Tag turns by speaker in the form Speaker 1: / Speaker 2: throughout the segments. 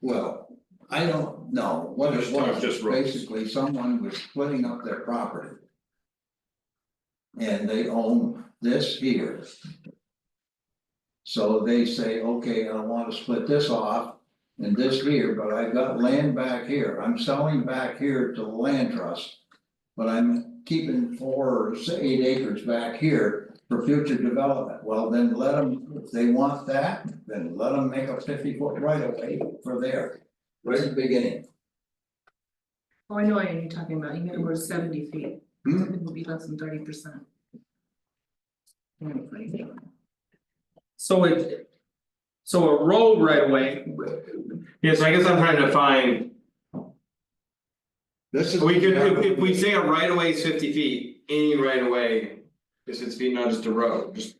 Speaker 1: Well, I don't know, what it
Speaker 2: This time
Speaker 1: was,
Speaker 2: just roads.
Speaker 1: basically someone was splitting up their property. And they own this here. So they say, okay, I wanna split this off and this here, but I've got land back here, I'm selling back here to the land trust. But I'm keeping four or s- eight acres back here for future development, well, then let them, if they want that, then let them make a fifty foot right of way for there. Right at the beginning.
Speaker 3: Oh, I know what you're talking about, you meant we're seventy feet,
Speaker 1: Hmm?
Speaker 3: it would be less than thirty percent.
Speaker 4: So it. So a road right away. Yes, I guess I'm trying to find,
Speaker 1: This is.
Speaker 4: we could, if if we say a right of way is fifty feet, any right of way. Is its feet, not just a road, just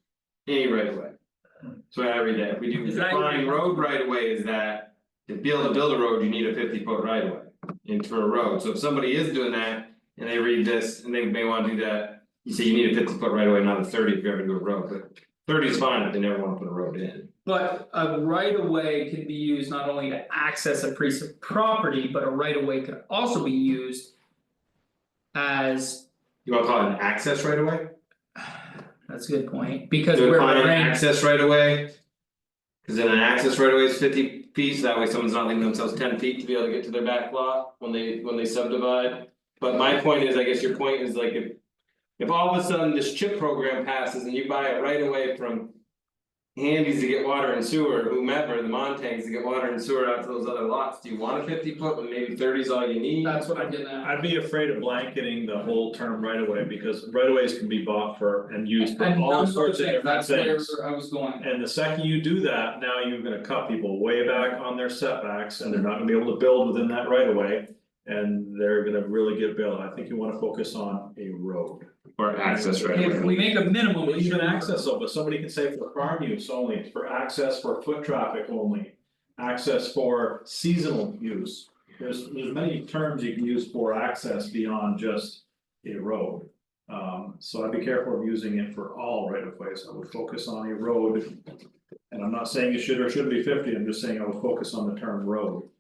Speaker 4: any right of way. So every day, we do
Speaker 5: Is right of way-
Speaker 4: define road right of way is that. To be able to build a road, you need a fifty foot right of way into a road, so if somebody is doing that and they read this and they may wanna do that. You say you need a fifty foot right of way, not a thirty if you're gonna do a road, but thirty is fine if they never wanna put a road in.
Speaker 5: But a right of way can be used not only to access a piece of property, but a right of way could also be used. As,
Speaker 4: You wanna call it an access right away?
Speaker 5: that's a good point, because
Speaker 4: Do
Speaker 5: we're
Speaker 4: it on an
Speaker 5: ranked,
Speaker 4: access right away? Cause then an access right away is fifty feet, so that way someone's not leaving themselves ten feet to be able to get to their back lot when they when they subdivide. But my point is, I guess your point is like if. If all of a sudden this chip program passes and you buy it right away from. Handy's to get water and sewer, whomever, the Montagues to get water and sewer out to those other lots, do you want a fifty foot when maybe 30 is all you need?
Speaker 5: that's what I'm getting at.
Speaker 2: I'd be afraid of blanketing the whole term right away because right aways can be bought for and used for
Speaker 5: And
Speaker 2: all
Speaker 5: those
Speaker 2: sorts of
Speaker 5: things,
Speaker 2: different things.
Speaker 5: That's where I was going,
Speaker 2: And the second you do that, now you're gonna cut people way back on their setbacks and they're not gonna be able to build within that right of way. And they're gonna really get built, I think you wanna focus on a road,
Speaker 4: Or access right away.
Speaker 5: if we make a minimum,
Speaker 2: well,
Speaker 5: we should.
Speaker 2: even access though, but somebody can say for farm use only, for access for foot traffic only. Access for seasonal use, there's there's many terms you can use for access beyond just a road. Um, so I'd be careful of using it for all right of ways, I would focus on a road. And I'm not saying it should or shouldn't be fifty, I'm just saying I would focus on the term road.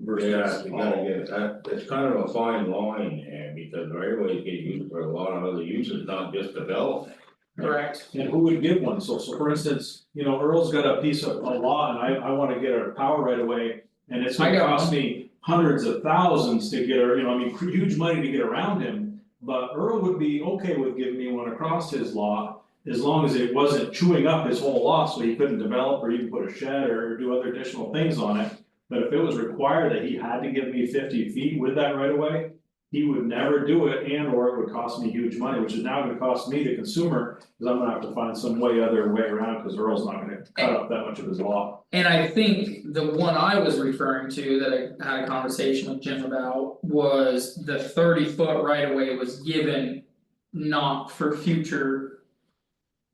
Speaker 6: Yeah,
Speaker 2: Versus
Speaker 6: you gotta
Speaker 2: all,
Speaker 6: get, that, it's kind of a fine line there, because right away you get used for a lot of other uses, not just development.
Speaker 5: Correct.
Speaker 2: and who would give one, so so for instance, you know, Earl's got a piece of a lot and I I wanna get a power right away. And it's
Speaker 5: I
Speaker 2: gonna
Speaker 5: got
Speaker 2: cost me hundreds of thousands to get, a- you know, I mean, huge money to get around him. But Earl would be okay with giving me one across his lot, as long as it wasn't chewing up his whole lot, so he couldn't develop or even put a shed or do other additional things on it. But if it was required that he had to give me fifty feet with that right away, he would never do it and or it would cost me huge money, which is now gonna cost me, the consumer, cause I'm gonna have to find some way other way around, cause Earl's not gonna cut up that much of his law.
Speaker 5: And I think the one I was referring to that I had a conversation with Jim about was the thirty foot right of way was given. Not for future.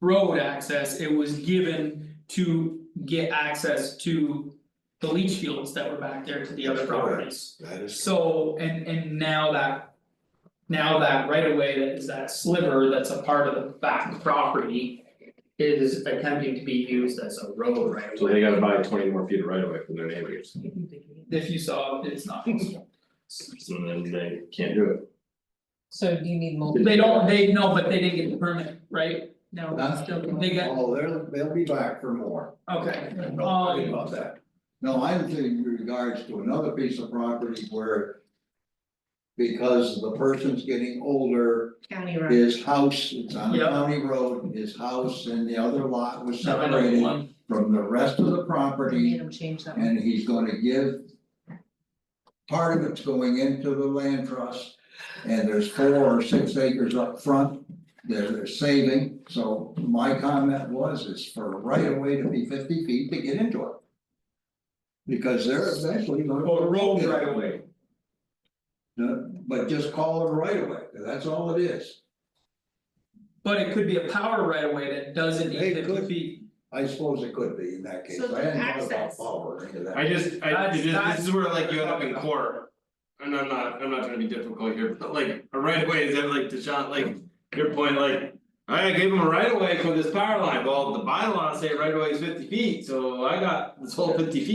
Speaker 5: Road access, it was given to get access to the leach fields that were back there to the other properties.
Speaker 1: That is.
Speaker 5: So, and and now that. Now that right of way that is that sliver that's a part of the back property. Is attempting to be used as a road right of
Speaker 4: So
Speaker 5: way.
Speaker 4: they gotta buy twenty more feet of right away from their neighbors,
Speaker 5: If you saw, it's not possible.
Speaker 4: so then they can't do it.
Speaker 7: So do you need multiple?
Speaker 5: They don't, they know, but they didn't get the permit, right? No,
Speaker 1: Huh?
Speaker 5: still, they got,
Speaker 1: Oh, they'll, they'll be back for more,
Speaker 5: okay,
Speaker 1: don't
Speaker 4: Oh,
Speaker 1: worry
Speaker 5: um,
Speaker 1: about that. No, I'm thinking in regards to another piece of property where. Because the person's getting older,
Speaker 3: County road.
Speaker 1: his house, it's on a
Speaker 5: Yeah.
Speaker 1: county road, his house and the other lot was
Speaker 5: no, I know
Speaker 1: separated
Speaker 5: one,
Speaker 1: from the rest of the property.
Speaker 3: Made him change that one.
Speaker 1: And he's gonna give. Part of it's going into the land trust, and there's four or six acres up front that they're saving. So my comment was is for right of way to be fifty feet to get into it. Because they're eventually gonna.
Speaker 5: or road right away.
Speaker 1: No, But just call it a right of way, that's all it is.
Speaker 5: But it could be a power right away that doesn't need
Speaker 1: It
Speaker 5: fifty
Speaker 1: could.
Speaker 5: feet.
Speaker 1: I suppose it could be in that case,
Speaker 3: So the
Speaker 1: I hadn't thought about
Speaker 3: access.
Speaker 1: power or any of that.
Speaker 4: I just, I,
Speaker 5: That's-
Speaker 4: it is- this is where like you end up in
Speaker 5: that's-
Speaker 4: court. And I'm not, I'm not trying to be difficult here, but like, a right away is ever like Deshaun, like, your point, like. I gave him a right away for this power line, well, the bylaws say right away is fifty feet, so I got this whole fifty feet